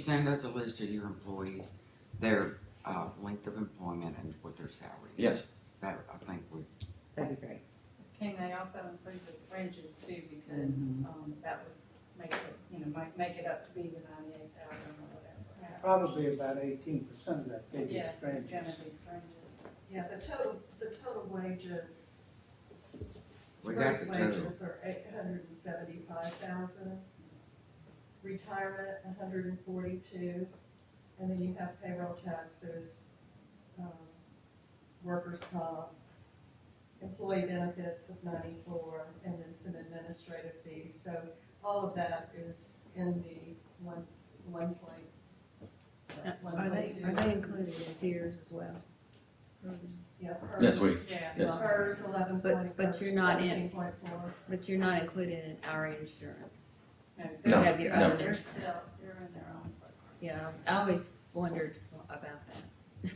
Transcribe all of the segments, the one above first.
send us a list of your employees, their, uh, length of employment and what their salary is. Yes, That, I think would, That'd be great. Can they also include the fringes too, because, um, that would make it, you know, make, make it up to be the ninety-eight thousand or whatever. Probably about eighteen percent of that figure Yeah, is it's gonna fringes. be fringes. Yeah, the total, the total wages, we got gross the total. wages are eight hundred and seventy-five thousand. Retirement, a hundred and forty-two, and then you have payroll taxes, um, workers' comp, employee benefits of ninety-four, and then some administrative fees, so all of that is in the one, one point. Uh, one Are they, point two. are they included in theirs as well? Yeah, hers. yes, we, Yeah, Yes. Hers eleven But- point, but you're not in. seventeen point four, But you're not included in our insurance. no, No, You they're, uh, have your no. own they're insurance. still, they're in their own program. Yeah, I always wondered about that.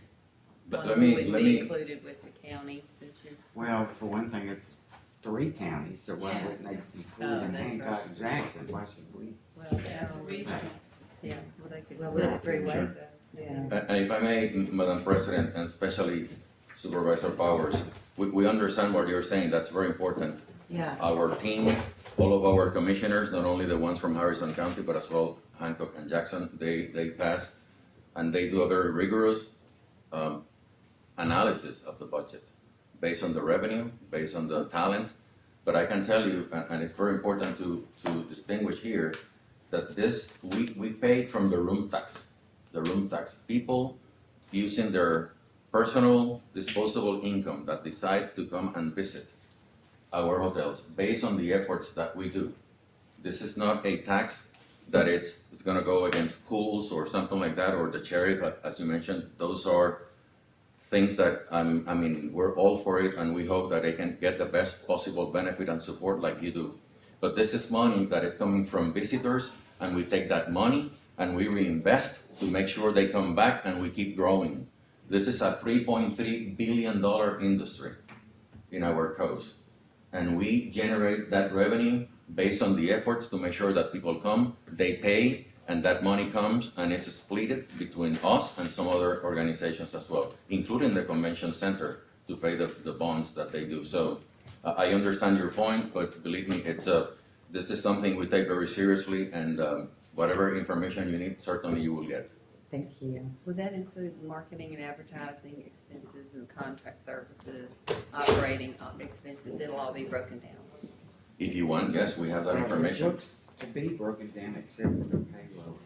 but One let me, would let be me, Included with the county since you're, Well, for one thing, it's three counties, so why Yeah. wouldn't they Oh, include in that's Hancock and Jackson, why should we? well, Yeah, it's they're all- regional. yeah, well, they could Well, split we- it three ways. Sure. though. Yeah. And and uh, if I may, M- Madam President, and especially Supervisor Powers, we, we understand what you're saying, that's very important. Yeah. Our team, all of our commissioners, not only the ones from Harrison County, but as well Hancock and Jackson, they, they pass, and they do a very rigorous, um, analysis of the budget, based on the revenue, based on the talent. But I can tell you, a- and it's very important to, to distinguish here, that this, we, we paid from the room tax, the room tax. People using their personal disposable income that decide to come and visit our hotels based on the efforts that we do. This is not a tax that it's, it's gonna go against schools or something like that, or the sheriff, a- as you mentioned, those are things that, um, I mean, we're all for it, and we hope that they can get the best possible benefit and support like you do. But this is money that is coming from visitors, and we take that money and we reinvest to make sure they come back and we keep growing. This is a three point three billion dollar industry in our coast. And we generate that revenue based on the efforts to make sure that people come, they pay, and that money comes and it's split between us and some other organizations as well, including the convention center to pay the, the bonds that they do. So I, I understand your point, but believe me, it's a, this is something we take very seriously and, um, whatever information you need, certainly you will get. Thank you. Would that include marketing and advertising expenses and contract services, operating uh, expenses? It'll all be broken down. If you want, yes, we have that It information. looks to be broken down except for the payroll.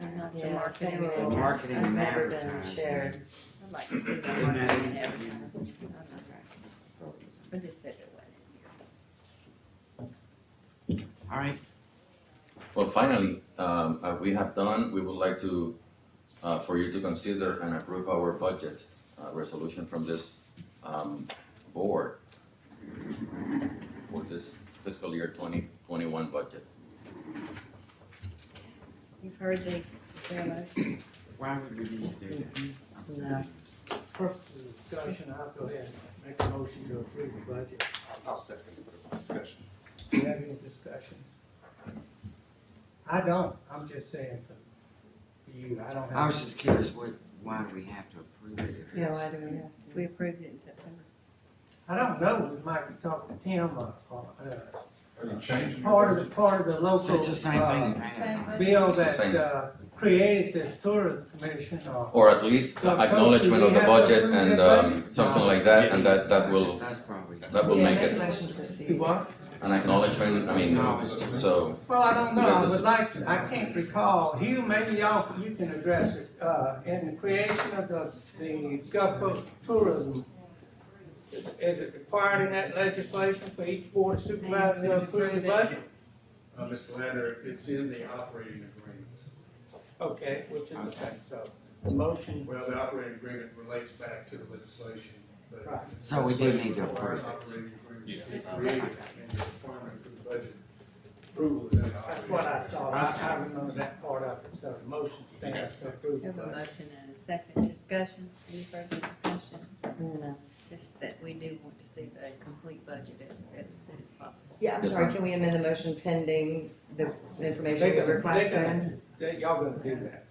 I'm not the Yeah, marketing. payroll. The marketing That's and never been advertising. shared. I'd like to see that And marketing that- and advertising. I'm not- Start with I just said it wasn't in here. that. All right, Well, finally, um, as we have done, we would like to, uh, for you to consider and approve our budget, uh, resolution from this, um, board for this fiscal year twenty twenty-one budget. You've heard the, is there a motion? why would we need to do that? I'm No. sorry. Purpose of the discussion, I'll go ahead and make a motion to approve the budget. I'll second it for discussion. Do you have any discussions? I don't, I'm just saying for you, I don't have. I was just curious, what, why do we have to approve it if Yeah, it's? why do we have to? We approved it in September. I don't know, we might talk to Tim or, or, uh, Are you changing? your part of, budget? the part of the So local, it's the same thing you uh, had. Same. bill It's the that, same. uh, created this tourism commission or. Or at least So, acknowledgement of the folks, do we budget have to and, approve that um, something like that, and that, that will, That's probably. that will Yeah, make make it motion to proceed. You what? an acknowledgement, I mean, so, Well, I don't know, I Because- would like, to- I can't recall, Hugh, maybe y'all, you can address it, uh, in the creation of the, the Gulf Coast tourism. Is it required in that legislation for each board supervisor to approve the budget? Uh, Mr. Lander, it's in the operating agreement. Okay, which is, okay, so, the motion, Well, the operating agreement relates back to the legislation, but. Right. So we do need to Requires approve it. Operating agreements to be created and the requirement for the budget approval is in the that's operating. what I thought, I, I remember that part of it, so the motion stands to approve We the have a budget. motion and a second discussion. Any further discussion? No. Just that we do want to see the complete budget as, as soon as possible. Yeah, I'm Yes, sorry, ma'am. can we amend the motion pending the They information gonna- we they requested? gonna- they- Y'all gonna do that.